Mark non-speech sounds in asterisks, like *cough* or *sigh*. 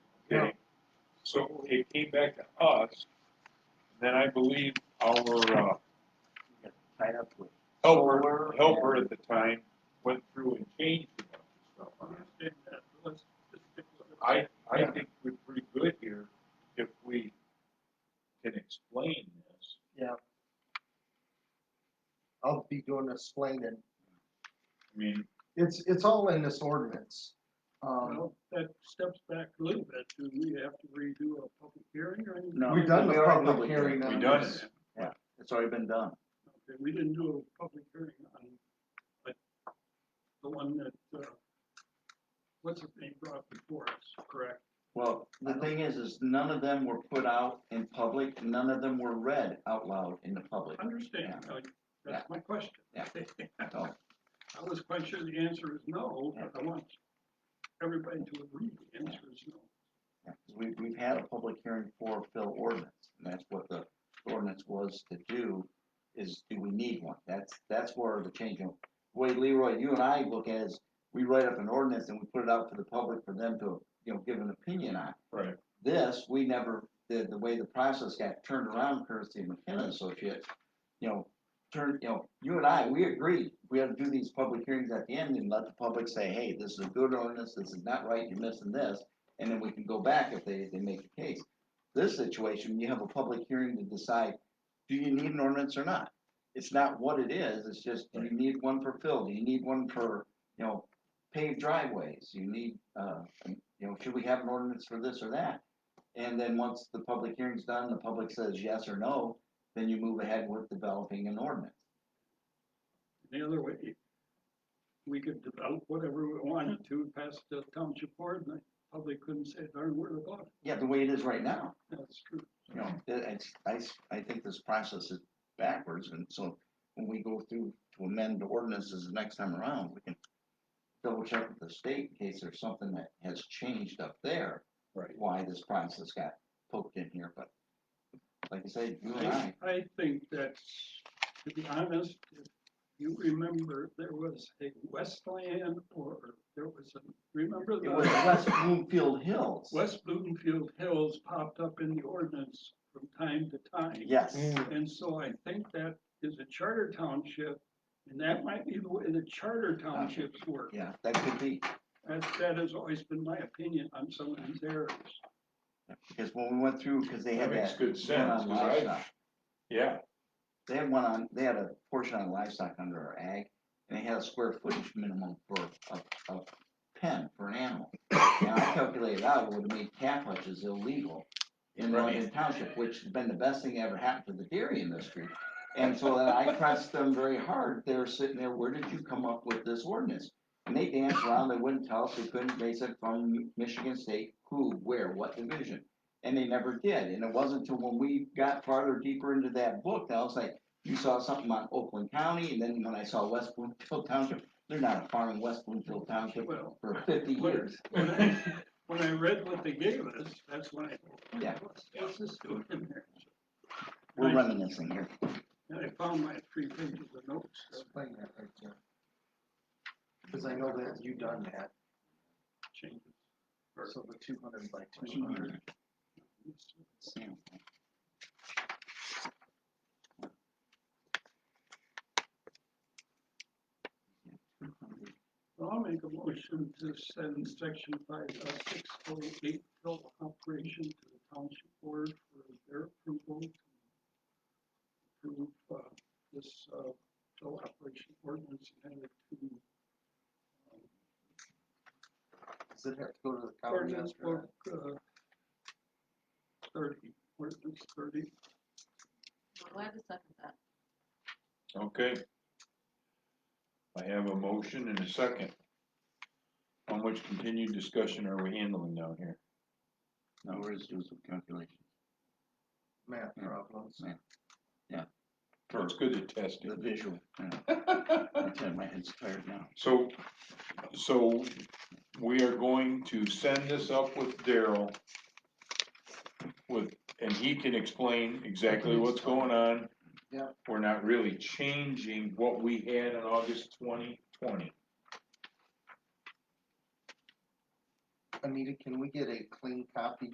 So it came back to us, then I believe our, uh, tied up with. helper, helper at the time went through and changed a bunch of stuff on it. I, I think we're pretty good here if we can explain this. Yeah. I'll be doing explaining. I mean, It's, it's all in this ordinance. Um, Well, that steps back a little bit, do we have to redo a public hearing or anything? No, We've done we the already public hearing we on done this. it. It's already been done. Okay, we didn't do a public hearing on, but the one that, uh, what's his name brought before us, correct? Well, the thing is, is none of them were put out in public, none of them were read out loud in the public. Understand, I- that's my question. Yeah. So, I was quite sure the answer is no, but I want everybody to agree the answer is no. yeah, 'cause We, we've had a public hearing for Phil ordinance, and that's what the ordinance was to do, is do we need one? That's, that's where the change, in- way Leroy, you and I look at is, we write up an ordinance and we put it out to the public for them to, you know, give an opinion on. Right. this, we never, the, the way the process got turned around courtesy of McKenna Associates, you know, turn, you know, you and I, we agreed, we had to do these public hearings at the end and let the public say, hey, this is a good ordinance, this is not right, you're missing this, and then we can go back if they, they make a case. This situation, you have a public hearing to decide, do you need an ordinance or not? It's not what it is, it's just, do you need one for fill, do you need one for, you know, paved driveways, you need, uh, you know, should we have an ordinance for this or that? And then once the public hearing's done, the public says yes or no, then you move ahead with developing an ordinance. The other way, we could develop whatever we wanted to, pass the township board, and I probably couldn't say a darn word about it. Yeah, the way it is right now, That's true. you know, it- it's, I, s- I think this process is backwards, and so when we go through to amend the ordinances the next time around, we can double check with the state in case there's something that has changed up there. Right. Why this process got poked in here, but like I say, you and I, I, I think that, to be honest, if you remember, there was a Westland or there was a, remember it was the West Bloomfield Hills. West Bloomfield Hills popped up in the ordinance from time to time. Yes. Mm. And so I think that is a charter township, and that might be the way the charter Uh, townships work. Yeah, that could be, That, that has always been my opinion on some of these areas. because when we went through, because they had That makes that good one sense, on 'cause I- livestock. yeah, They had one on, they had a portion on livestock under our ag, and they had a square footage minimum for a, a pen for an animal. And I calculated out, it would have made calf hutches illegal in Right. London Township, which has been the best thing that ever happened to the dairy industry. And so then I pressed them very hard, they're sitting there, where did you come up with this ordinance? And they danced around, they wouldn't tell us, they couldn't, they said from Michigan State, who, where, what division? And they never did, and it wasn't until when we got farther deeper into that book, that I was like, you saw something on Oakland County, and then when I saw West Bloomfield Township, they're not a farm in West Bloomfield Township *laughs* Well, for fifty What- years. When I, when I read what they gave us, that's when I, Yeah. what's, what's this doing in there? We're Right. reminiscing here. And I found my three pages of notes. so explain that right there. Cause I know that you done that, it changes. or so the two hundred by two hundred. it's- so I'll make a motion to send section five, uh, six oh eight bill operation to the township board for their approval. to Approve, uh, this, uh, bill operation ordinance and it to, um, Does it have to go to the county Ordinance after book, uh, thirty, ordinance thirty, I'm glad to second that. okay. I have a motion and a second. How much continued discussion are we handling down here? No, we're just doing some calculations. that? Math problems. Yeah. It's good to test The it. *laughs* visual, you know, I'm telling you, my head's tired now. So, so we are going to send this up with Daryl. With, and he can explain exactly what's going on. Yeah. We're not really changing what we had on August twenty twenty. Anita, can we get a clean copy